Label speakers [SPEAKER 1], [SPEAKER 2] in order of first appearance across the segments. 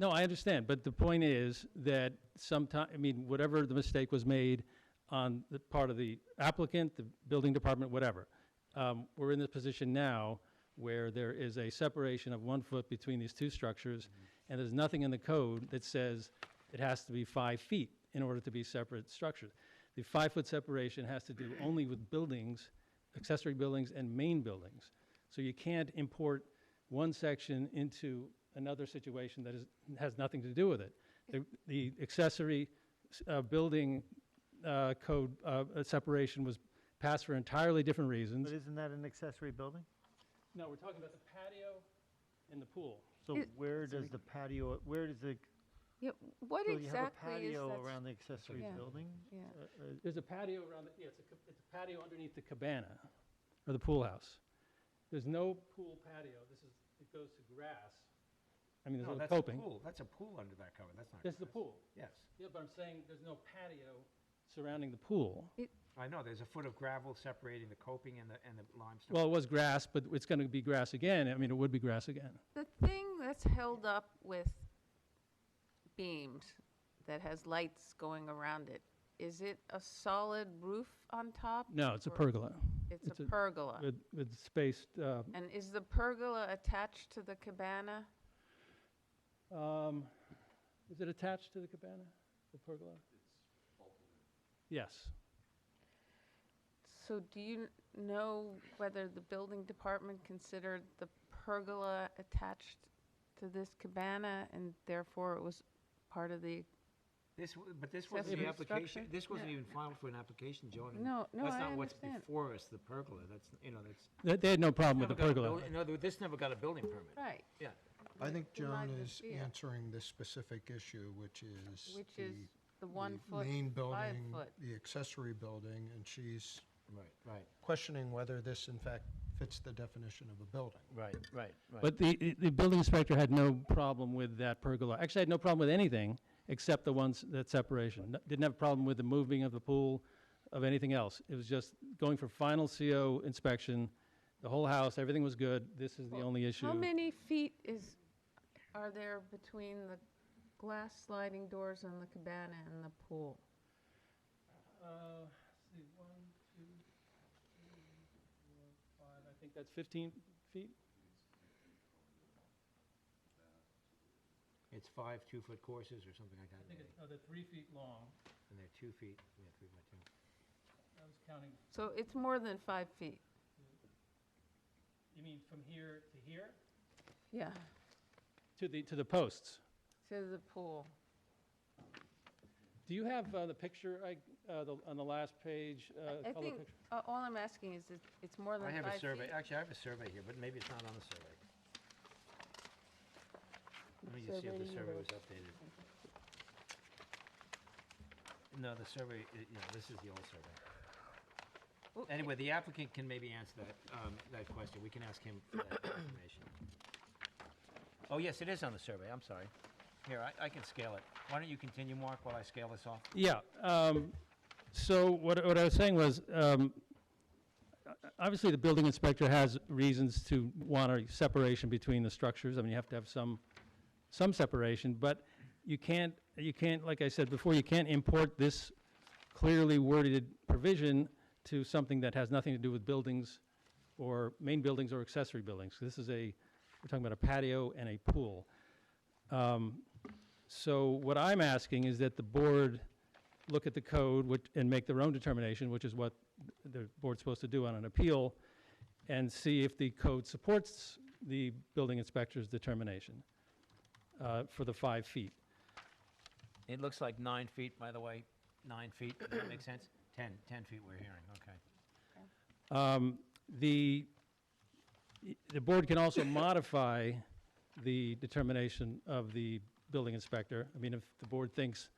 [SPEAKER 1] No, I understand, but the point is that sometime, I mean, whatever the mistake was made on the part of the applicant, the building department, whatever, um, we're in this position now where there is a separation of one foot between these two structures, and there's nothing in the code that says it has to be five feet in order to be separate structures. The five-foot separation has to do only with buildings, accessory buildings and main buildings. So you can't import one section into another situation that is, has nothing to do with it. The, the accessory s- uh, building uh, code uh, uh, separation was passed for entirely different reasons.
[SPEAKER 2] But isn't that an accessory building?
[SPEAKER 1] No, we're talking about the patio and the pool.
[SPEAKER 2] So
[SPEAKER 3] It-
[SPEAKER 2] where does the patio, where does the,
[SPEAKER 3] Yeah, what
[SPEAKER 2] so you have a
[SPEAKER 3] exactly is
[SPEAKER 2] patio
[SPEAKER 3] that?
[SPEAKER 2] around the accessory
[SPEAKER 3] Yeah.
[SPEAKER 2] building?
[SPEAKER 3] Yeah.
[SPEAKER 2] Uh, uh,
[SPEAKER 1] There's a patio around, the- yeah, it's a, ca- it's a patio underneath the cabana, or the pool house. There's no pool patio, this is, it goes to grass. I mean, there's a
[SPEAKER 4] No,
[SPEAKER 1] little
[SPEAKER 4] that's a
[SPEAKER 1] coping.
[SPEAKER 4] pool, that's a pool under that cover, that's not.
[SPEAKER 1] This is the
[SPEAKER 4] grass.
[SPEAKER 1] pool.
[SPEAKER 4] Yes,
[SPEAKER 1] Yeah, but I'm saying there's no patio surrounding the pool.
[SPEAKER 4] I know, there's a foot of gravel separating the coping and the, and the limestone.
[SPEAKER 1] Well, it was grass, but it's going to be grass again. I mean, it would be grass again.
[SPEAKER 3] The thing that's held up with beams that has lights going around it, is it a solid roof on top?
[SPEAKER 1] No, it's a
[SPEAKER 3] or-
[SPEAKER 1] pergola
[SPEAKER 3] It's
[SPEAKER 1] it's
[SPEAKER 3] a
[SPEAKER 1] a-
[SPEAKER 3] pergola.
[SPEAKER 1] with, with spaced, uh,
[SPEAKER 3] And is the pergola attached to the cabana?
[SPEAKER 1] um, is it attached to the cabana, the pergola? Yes.
[SPEAKER 3] So do you kn- know whether the building department considered the pergola attached to this cabana and therefore it was part of the,
[SPEAKER 4] This, w- but this wasn't
[SPEAKER 3] Accessory
[SPEAKER 4] the application,
[SPEAKER 3] structure?
[SPEAKER 4] this wasn't
[SPEAKER 3] Yeah.
[SPEAKER 4] even filed for an application, Joan. and
[SPEAKER 3] No, no, I
[SPEAKER 4] That's not what's
[SPEAKER 3] understand.
[SPEAKER 4] before us, the pergola, that's, you know, that's.
[SPEAKER 1] They, they had no problem with
[SPEAKER 4] never
[SPEAKER 1] the
[SPEAKER 4] got a
[SPEAKER 1] pergola.
[SPEAKER 4] buil- In other words, this never got a building permit.
[SPEAKER 3] right?
[SPEAKER 4] Yeah,
[SPEAKER 5] I think
[SPEAKER 3] Did not
[SPEAKER 5] Joan is
[SPEAKER 3] see it.
[SPEAKER 5] answering this specific issue, which is.
[SPEAKER 3] Which
[SPEAKER 5] the-
[SPEAKER 3] is the one
[SPEAKER 5] the
[SPEAKER 3] foot,
[SPEAKER 5] Main
[SPEAKER 3] five
[SPEAKER 5] building,
[SPEAKER 3] foot.
[SPEAKER 5] the accessory building, and she's
[SPEAKER 4] right, right,
[SPEAKER 5] questioning whether this in fact fits the definition of a building.
[SPEAKER 4] right, right, right.
[SPEAKER 1] But the, the- the building inspector had no problem with that pergola. Actually, I had no problem with anything except the ones, that separation. No- Didn't have a problem with the moving of the pool, of anything else. It was just going for final CO inspection, the whole house, everything was good. This is the
[SPEAKER 3] Well,
[SPEAKER 1] only issue. Uh,
[SPEAKER 3] How many feet is, are there between the glass sliding doors on the cabana and the pool?
[SPEAKER 1] Uh, let's see, one, two, three, four, five, I think that's 15 feet?
[SPEAKER 4] It's five two-foot courses or something like that,
[SPEAKER 1] I think
[SPEAKER 4] maybe,
[SPEAKER 1] it's, no, they're three feet long.
[SPEAKER 4] and they're two feet, yeah, three by two.
[SPEAKER 1] I was counting,
[SPEAKER 3] So it's more than five feet,
[SPEAKER 1] you mean from here to here?
[SPEAKER 3] yeah,
[SPEAKER 1] To the, to the posts.
[SPEAKER 3] to the pool.
[SPEAKER 1] Do you have uh, the picture, I- uh, the- on the last page? uh,
[SPEAKER 3] I- I
[SPEAKER 1] color
[SPEAKER 3] think,
[SPEAKER 1] picture?
[SPEAKER 3] uh, all I'm asking is, it- it's more than
[SPEAKER 4] I
[SPEAKER 3] five feet?
[SPEAKER 4] have a survey, actually, I have a survey here, but maybe it's not on the survey. Let me just see if the survey was updated. No, the survey, i- yeah, this is the old survey.
[SPEAKER 3] Well, i-
[SPEAKER 4] Anyway, the applicant can maybe answer that, um, that question, we can ask him for that information. Oh, yes, it is on the survey, I'm sorry. Here, I, I can scale it. Why don't you continue, Mark, while I scale this off?
[SPEAKER 1] Yeah, um, so what, what I was saying was, um, o- obviously, the building inspector has reasons to want a separation between the structures. I mean, you have to have some, some separation, but you can't, you can't, like I said before, you can't import this clearly worded provision to something that has nothing to do with buildings or main buildings or accessory buildings. This is a, we're talking about a patio and a pool. Um, So what I'm asking is that the board look at the code which- and make their own determination, which is what the board's supposed to do on an appeal, and see if the code supports the building inspector's determination uh, for the five feet.
[SPEAKER 4] It looks like nine feet, by the way, nine feet, does that make sense? Ten, ten feet we're hearing, okay.
[SPEAKER 1] Um, The, the board can also modify the determination of the building inspector. I mean, if the board thinks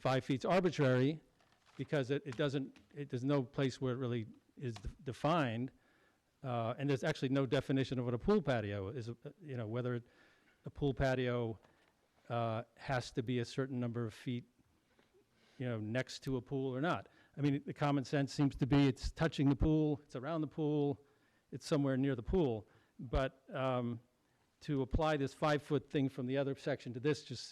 [SPEAKER 1] five feet's arbitrary, because it, it doesn't, it, there's no place where it really is de- defined, uh, and there's actually no definition of what a pool patio is, uh, you know, whether a pool patio uh, has to be a certain number of feet, you know, next to a pool or not. I mean, the common sense seems to be it's touching the pool, it's around the pool, it's somewhere near the pool. But um, to apply this five-foot thing from the other section to this just